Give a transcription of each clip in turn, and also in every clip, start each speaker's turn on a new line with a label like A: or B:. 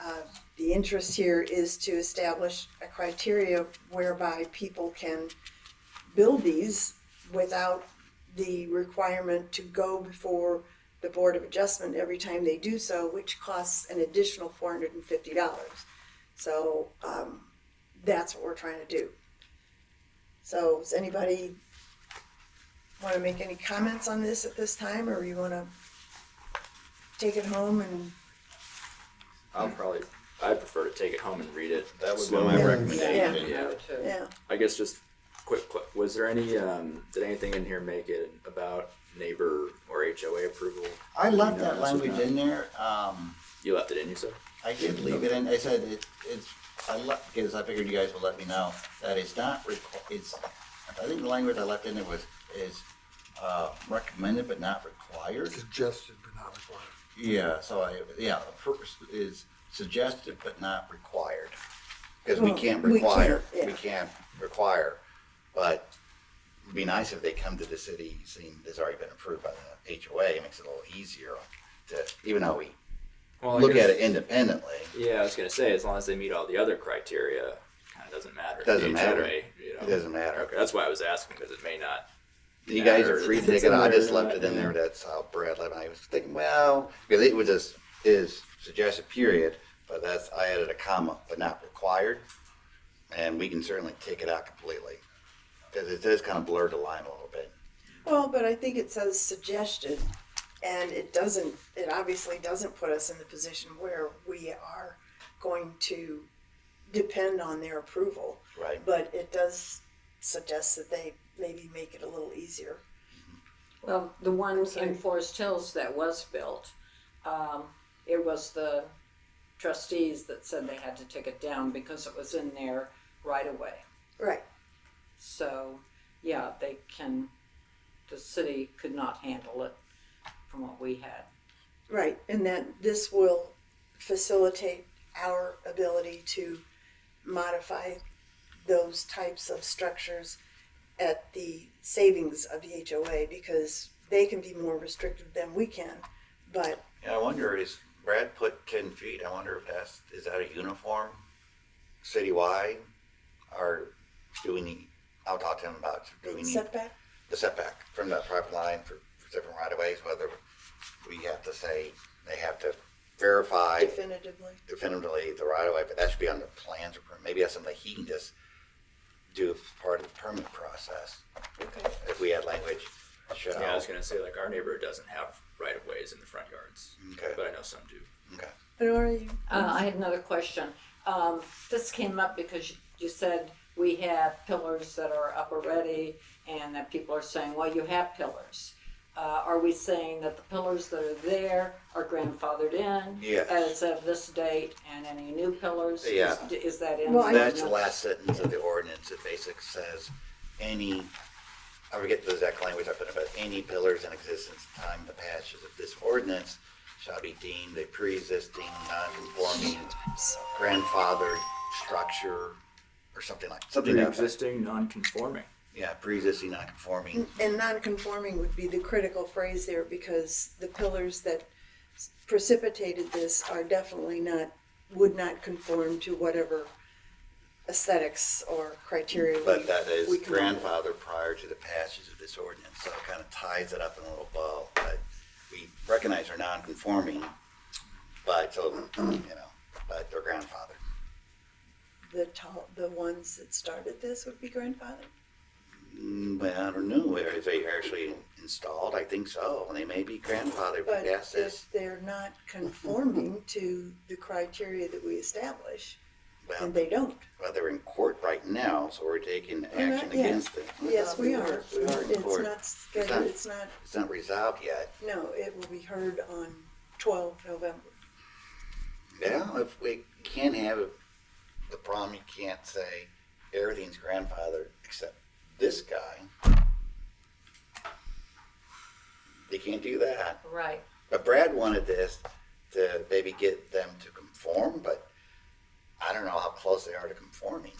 A: uh, the interest here is to establish a criteria whereby people can build these without the requirement to go before the Board of Adjustment every time they do so, which costs an additional four hundred and fifty dollars. So, um, that's what we're trying to do. So, does anybody wanna make any comments on this at this time, or you wanna take it home and
B: I'll probably, I prefer to take it home and read it.
C: That would be
B: slowly.
C: my
A: Yeah.
C: recommendation.
B: Yeah.
A: Yeah,
B: I guess just quick, quick, was there any, um, did anything in here make it about neighbor or HOA approval?
C: I left
B: No,
C: that
B: that's
C: language
B: okay.
C: in there, um,
B: You left it in, you said?
C: I did leave it in, I said it, it's, I left, because I figured you guys would let me know, that it's not requ- it's, I think the language I left in there was, is, uh, recommended but not required.
D: Suggested but not required.
C: Yeah, so I, yeah, the purpose is suggested but not required. Because we
A: Well,
C: can't
A: we can't,
C: require,
A: yeah.
C: we can't require, but it'd be nice if they come to the city, seeing it's already been approved by the HOA, it makes it a little easier to, even though we
B: Well,
C: look at it independently.
B: Yeah, I was gonna say, as long as they meet all the other criteria, kinda doesn't matter.
C: Doesn't
B: HOA,
C: matter.
B: you know.
C: It doesn't matter.
B: Okay, that's why I was asking, cause it may not.
C: You guys are free to take it. I just left it in
B: Yeah.
C: there. That's how Brad left. it. I was thinking, well, because it was just is suggested period, but that's I added a comma, but not required, and we can certainly take it out completely because it does kind of blur the line a little bit.
A: well, but I think it says suggested, and it doesn't, it obviously doesn't put us in the position where we are going to depend on their approval,
C: Right.
A: but it does suggest that they maybe make it a little easier.
E: Well, the one
A: sorry.
E: in Forest Hills that was built, um, it was the trustees that said they had to take it down because it was in their right of way.
A: Right.
E: So, yeah, they can, the city could not handle it from what we had.
A: Right, and that this will facilitate our ability to modify those types of structures at the savings of the HOA because they can be more restrictive than we can. But
C: Yeah, I wonder is Brad put ten feet? I wonder if that's is that a uniform citywide, or do we need? I'll talk to him about do we need
A: setback,
C: the setback from that private line for, for different right of ways, whether we have to say, they have to verify
A: definitively,
C: definitively the right of way, but that should be on the plans or permit. maybe that's something he can just do as part of the permit process,
A: okay,
C: if we had language. Shall,
B: Yeah, I was gonna say, like, our neighborhood doesn't have right of ways in the front yards,
C: okay,
B: but I know some do.
C: okay.
A: but are you?
E: Uh, I had another question. Um, this came up because you said we have pillars that are up already and that people are saying, well, you have pillars. Uh, are we saying that the pillars that are there are grandfathered in
C: Yes.
E: as of this date and any new pillars? Is-
C: Yeah.
E: Is that in?
A: Well, I-
C: That's the last sentence of the ordinance, it basically says, any, I forget the exact language I put in, but any pillars in existence at the time of the passage of this ordinance shall be deemed a pre-existing, non-conforming, grandfathered structure, or something like, something like that.
B: Pre-existing, non-conforming.
C: Yeah, pre-existing, non-conforming,
A: And non-conforming would be the critical phrase there because the pillars that precipitated this are definitely not, would not conform to whatever aesthetics or criteria. we-
C: but that is
A: we come up with.
C: grandfathered prior to the passage of this ordinance, so it kind of ties it up in a little bow, but we recognize they're non-conforming, but, so, you know, but they're grandfathered.
A: The tall, the ones that started this would be grandfathered?
C: Mm, But I don't know, are they actually installed? I think so, and they may be grandfathered, but
A: But
C: that's this,
A: if they're not conforming to the criteria that we establish,
C: well,
A: and they don't,
C: well, they're in court right now, so we're taking
A: not
C: action
A: yet.
C: against them.
A: yes, we are.
C: We are in
A: It's
C: court.
A: not, scheduled- it's not,
C: It's not resolved yet.
A: no, it will be heard on twelve November.
C: Yeah, if we can't have it, the problem, you can't say everything's grandfathered except this guy. They can't do that.
E: Right.
C: But Brad wanted this to maybe get them to conform, but I don't know how close they are to conforming.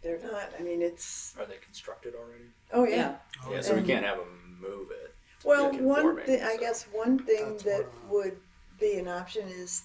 A: They're not, I mean, it's,
B: Are they constructed already?
A: oh
E: Yeah.
A: yeah.
B: Yeah, so we
A: And-
B: can't have them move it.
A: Well,
B: Yeah,
A: one
B: conforming,
A: thing, I
B: so.
A: guess one thing
D: That's
A: that
D: one.
A: would be an option is